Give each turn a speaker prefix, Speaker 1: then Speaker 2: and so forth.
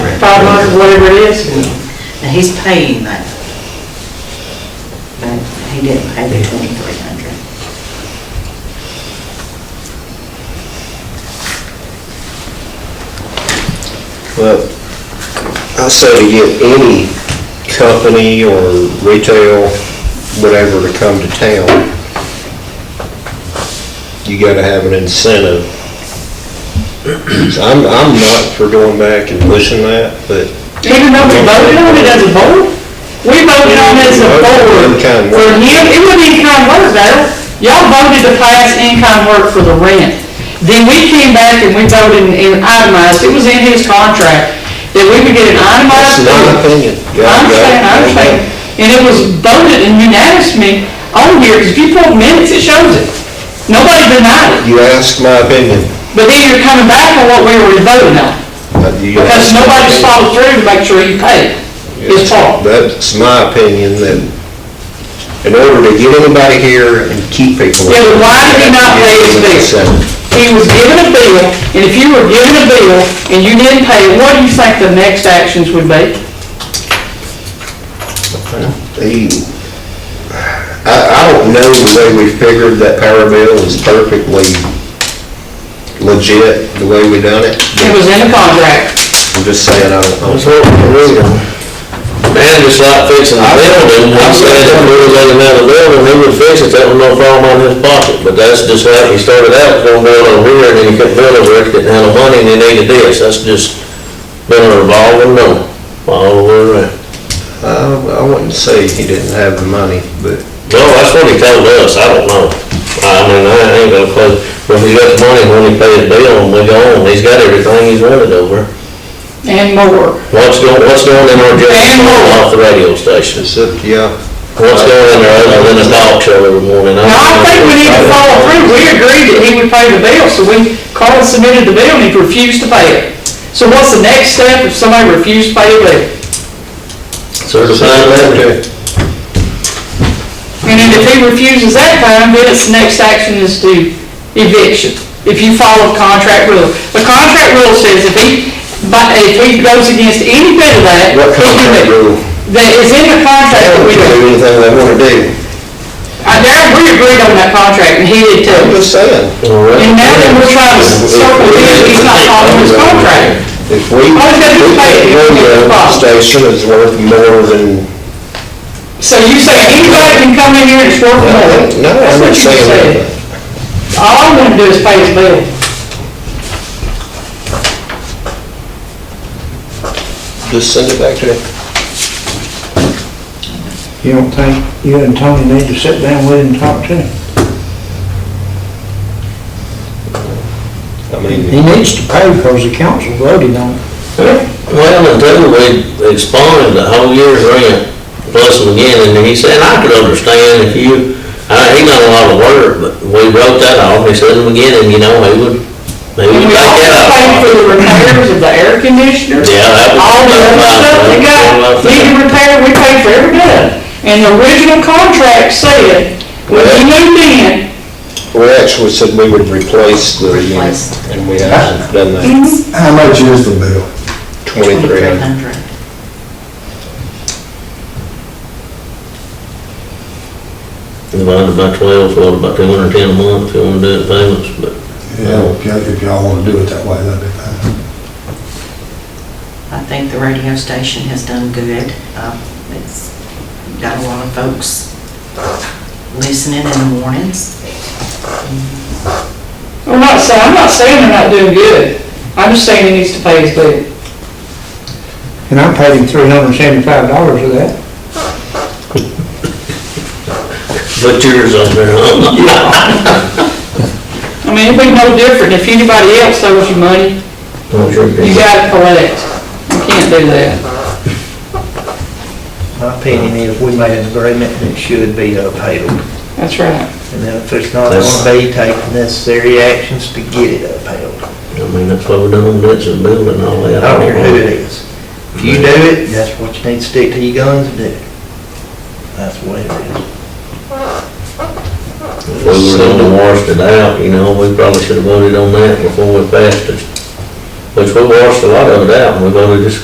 Speaker 1: hundred, whatever it is, and, and he's paying that. But he didn't pay the twenty-three hundred.
Speaker 2: Well, I say to get any company or retail, whatever, to come to town, you gotta have an incentive. So I'm, I'm not for going back and pushing that, but
Speaker 1: Even though we voted on it as a board, we voted on it as a board for him, it was in-kind work though. Y'all voted to pass in-kind work for the rent. Then we came back and we voted and itemized, it was in his contract, that we would get an
Speaker 2: that's
Speaker 1: itemized.
Speaker 2: my
Speaker 1: fee.
Speaker 2: opinion.
Speaker 1: I understand, I understand. And it was voted and unanimously on here, because if you pull minutes, it shows it. Nobody denied it.
Speaker 2: You asked my opinion.
Speaker 1: But then you're coming back on what we were voting on,
Speaker 2: Uh, you
Speaker 1: because
Speaker 2: asked my
Speaker 1: nobody's
Speaker 2: opinion.
Speaker 1: followed through to make sure you paid his part.
Speaker 2: That's my opinion, that in order to get anybody here and keep people.
Speaker 1: Yeah, but why did he not pay his bill? He was given a bill, and if you were given a bill and you didn't pay, it, what do you think the next actions would be?
Speaker 2: He, I, I don't know the way we figured that power bill is perfectly legit, the way we done it.
Speaker 1: It was in the contract.
Speaker 2: I'm just saying, I don't.
Speaker 3: That's what we need them. Man, just like fixing a building, I'm saying if we was in another building, he would fix it, that would no problem on his pocket. But that's just how he started out, was gonna build over here, and then he couldn't build over here, didn't have the money, and he needed this. That's just been a revolving door, all the way around.
Speaker 2: I, I wouldn't say he didn't have the money, but
Speaker 3: No, that's what he told us, I don't know. I mean, I ain't gonna, close when he got the money, when he paid his bill, and we go on, he's got everything he's rented over.
Speaker 1: And more.
Speaker 3: What's going, what's going in
Speaker 1: And
Speaker 3: our jail,
Speaker 1: more.
Speaker 3: off the radio
Speaker 2: it's
Speaker 3: stations?
Speaker 2: up to y'all.
Speaker 3: What's going in there other than a dog show every morning?
Speaker 1: Now, I think we need to follow through. We agreed that he would pay the bill, so we, Carl submitted the bill and he refused to pay it. So what's the next step if somebody refused to pay a bill?
Speaker 3: Certified letter.
Speaker 1: And then if he refuses that time, then its next action is to eviction, if you follow the contract rule. The contract rule says if he, but if he goes against any bit of that.
Speaker 2: What
Speaker 1: he can
Speaker 2: contract
Speaker 1: be-
Speaker 2: rule?
Speaker 1: That is in the
Speaker 2: They
Speaker 1: contract that
Speaker 2: don't
Speaker 1: we,
Speaker 2: do anything they wanna do.
Speaker 1: I, that, we agreed on that contract, and he did
Speaker 2: I'm
Speaker 1: too.
Speaker 2: just saying.
Speaker 1: And now that we're trying to circumvent, he's not following his contract.
Speaker 2: If we,
Speaker 1: All he's gotta do is pay it.
Speaker 2: if the radio station is worth more than,
Speaker 1: So you say anybody can come in here and it's worth
Speaker 2: no,
Speaker 1: more?
Speaker 2: no,
Speaker 1: That's
Speaker 2: I'm
Speaker 1: what
Speaker 2: not
Speaker 1: you
Speaker 2: saying
Speaker 1: said.
Speaker 2: that.
Speaker 1: All I want to do is pay his bill.
Speaker 2: Just send it back to him.
Speaker 4: You don't think you and Tony need to sit down with him and talk to him?
Speaker 2: I mean,
Speaker 4: He needs to pay because the council voted on it.
Speaker 3: Well, until we expunged the whole year's rent, plus again, and then he said, I could understand if you, I, he done a lot of work, but we wrote that off, he said, and again, and you know, he would, he
Speaker 1: And we
Speaker 3: would take
Speaker 1: also pay
Speaker 3: that
Speaker 1: for
Speaker 3: out.
Speaker 1: the repairs of the air conditioner.
Speaker 3: Yeah, that was.
Speaker 1: All the other stuff that got needed repair, we paid for every bit. And the original contract said, when you moved in,
Speaker 2: we actually said we would replace the unit, and we haven't done
Speaker 1: Mm-hmm.
Speaker 2: that.
Speaker 5: How much is the bill?
Speaker 2: Twenty-three hundred.
Speaker 3: Divided by twelve, so about two hundred and ten a month, if you wanna do it in payments, but
Speaker 5: Yeah, if y'all, if y'all wanna do it that way, that'd be fine.
Speaker 6: I think the radio station has done good. Uh, It's got a lot of folks listening in the mornings.
Speaker 1: I'm not saying, I'm not saying they're not doing good. I'm just saying he needs to pay his bill.
Speaker 4: And I paid him three hundred and seventy-five dollars for that.
Speaker 3: put yours on there, huh?
Speaker 1: I mean, it'd be no different if anybody else owes you money,
Speaker 3: Don't you
Speaker 1: you
Speaker 3: agree?
Speaker 1: gotta collect. You can't do that.
Speaker 7: My opinion is we made an agreement and it should be upheld.
Speaker 1: That's right.
Speaker 7: And then if it's not
Speaker 3: That's-
Speaker 7: gonna be, take the necessary actions to get it upheld.
Speaker 3: I mean, that's what we done, that's a building, and all that.
Speaker 7: I don't care who it is. If you do it, that's what you need to stick to your guns and do. it. That's what it is.
Speaker 3: If we were gonna wash it out, you know, we probably should have voted on that before we passed it. Which we washed a lot of it out, and we voted just